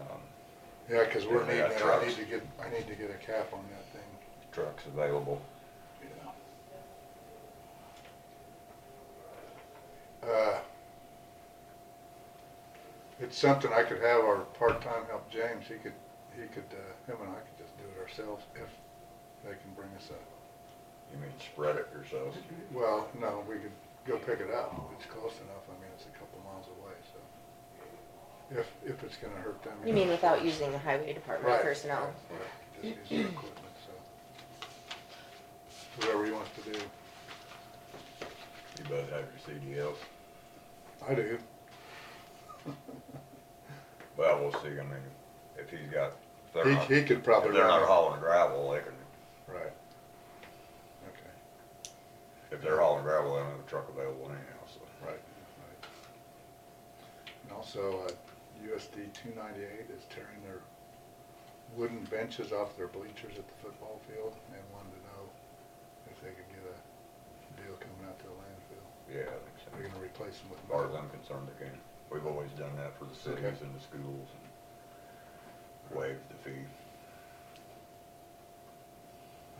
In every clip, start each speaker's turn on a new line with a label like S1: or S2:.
S1: um,
S2: Yeah, cause we're
S1: Yeah, they
S2: needing
S1: got
S2: it, I
S1: trucks.
S2: need to get, I need to get a cap on that thing,
S1: trucks available.
S2: yeah. Uh, It's something I could have our part-time help James, he could, he could, uh, him and I could just do it ourselves if they can bring us up.
S1: You mean spread it yourselves?
S2: Well, no, we could go pick it up, it's close enough, I mean, it's a couple miles away, so. If, if it's gonna hurt them.
S3: You mean without using the highway department
S2: Right,
S3: personnel?
S2: right, right. Just use their equipment, so. Whatever he wants to do.
S1: You both have your CDLs.
S2: I do.
S1: Well, we'll see. I mean, if he's got, if they're not,
S2: He, he
S1: if
S2: could probably.
S1: they're
S2: run
S1: not
S2: it.
S1: hauling gravel, they can,
S2: Right. Okay,
S1: if they're hauling gravel, they don't have a truck available anyhow, so.
S2: right, right. And also, uh, USD two ninety-eight is tearing their wooden benches off their bleachers at the football field and wanted to know if they could get a deal coming out to the landfill.
S1: Yeah, I
S2: They're
S1: think so.
S2: gonna replace them with.
S1: As far as I'm concerned, they can. We've always done that for the cities
S2: Okay.
S1: and the schools and waived the fee.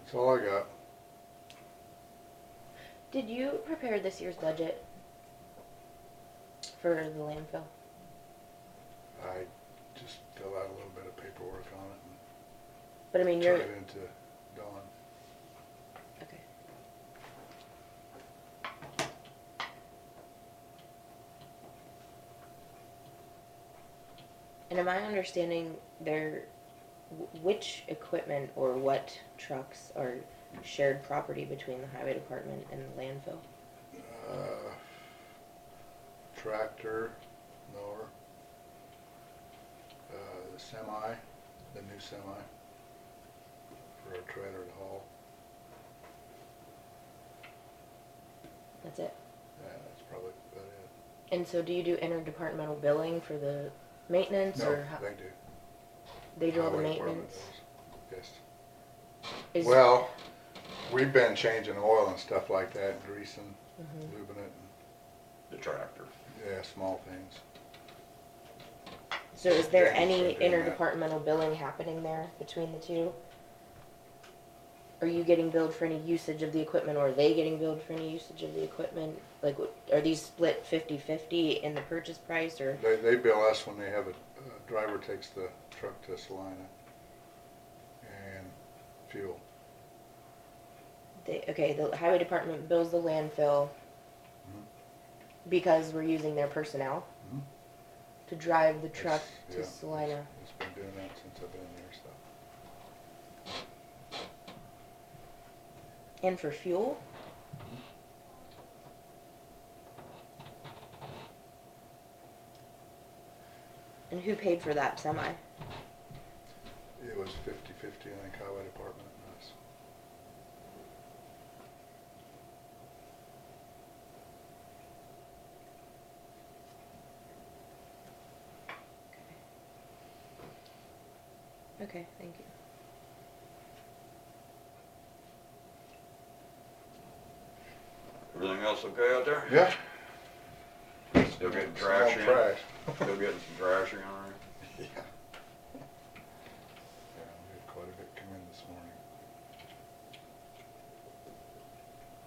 S2: That's all I got.
S3: Did you prepare this year's budget for the landfill?
S2: I just fill out a little bit of paperwork on it and
S3: But I mean,
S2: turn
S3: you're,
S2: it into Dawn.
S3: okay. And am I understanding there, wh- which equipment or what trucks are shared property between the highway department and the landfill?
S2: Uh, Tractor, mower, uh, the semi, the new semi for our trailer to haul.
S3: That's it?
S2: Yeah, that's probably about it.
S3: And so do you do interdepartmental billing for the maintenance
S2: No,
S3: or how,
S2: they do.
S3: they do all the
S2: Highway department
S3: maintenance?
S2: does. Yes.
S3: Is-
S2: Well, we've been changing oil and stuff like that, greasing,
S3: Mhm.
S2: lubing it,
S1: The tractor.
S2: and, yeah, small things.
S3: So is there
S2: Yeah,
S3: any
S2: we're doing that.
S3: interdepartmental billing happening there between the two? Are you getting billed for any usage of the equipment or are they getting billed for any usage of the equipment? Like, wh- are these split fifty-fifty in the purchase price or,
S2: They, they bill us when they have a, a driver takes the truck to Salina and fuel.
S3: they, okay, the highway department bills the landfill
S2: Mm-hmm.
S3: because we're using their personnel
S2: Mhm.
S3: to drive the truck
S2: It's-
S3: to
S2: yeah,
S3: Salina?
S2: it's- It's been doing that since I've been there, so.
S3: And for fuel? And who paid for that semi?
S2: It was fifty-fifty, I think, highway department and us.
S3: Okay, thank you.
S1: Everything else okay out there?
S2: Yeah.
S1: Still getting
S2: Small
S1: trash in?
S2: Trash.
S1: Still getting some trash in on
S2: Yeah. Yeah, we had quite a bit come in this morning.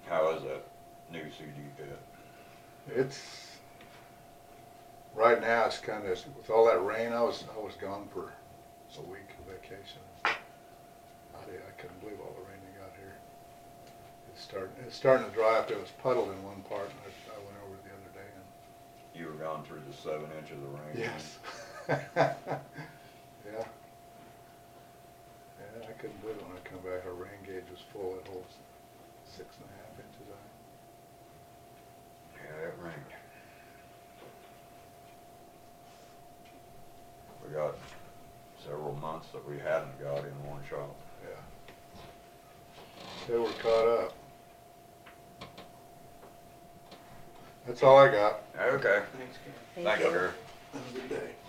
S1: there? How is that new uh, CD pit?
S2: It's, right now, it's kind of, with all that rain, I was, I was gone for a week of vacation. I, did- I couldn't believe all the rain they got here. It's starting, it's starting to dry up. It was puddled in one part, and I, I went over the other day and.
S1: You were gone through the seven inches of rain.
S2: Yeah. Yeah, I couldn't believe it when I come back. Our rain gauge was full. It holds six and a half inches high.
S1: Yeah, it rained. We got several months that we hadn't got in one shot.
S2: Yeah. They were caught up. That's all I got.
S1: Okay,
S4: Thanks, Ken.
S3: Thank
S1: thanks,
S3: you.
S1: Gary.
S2: Have a good day.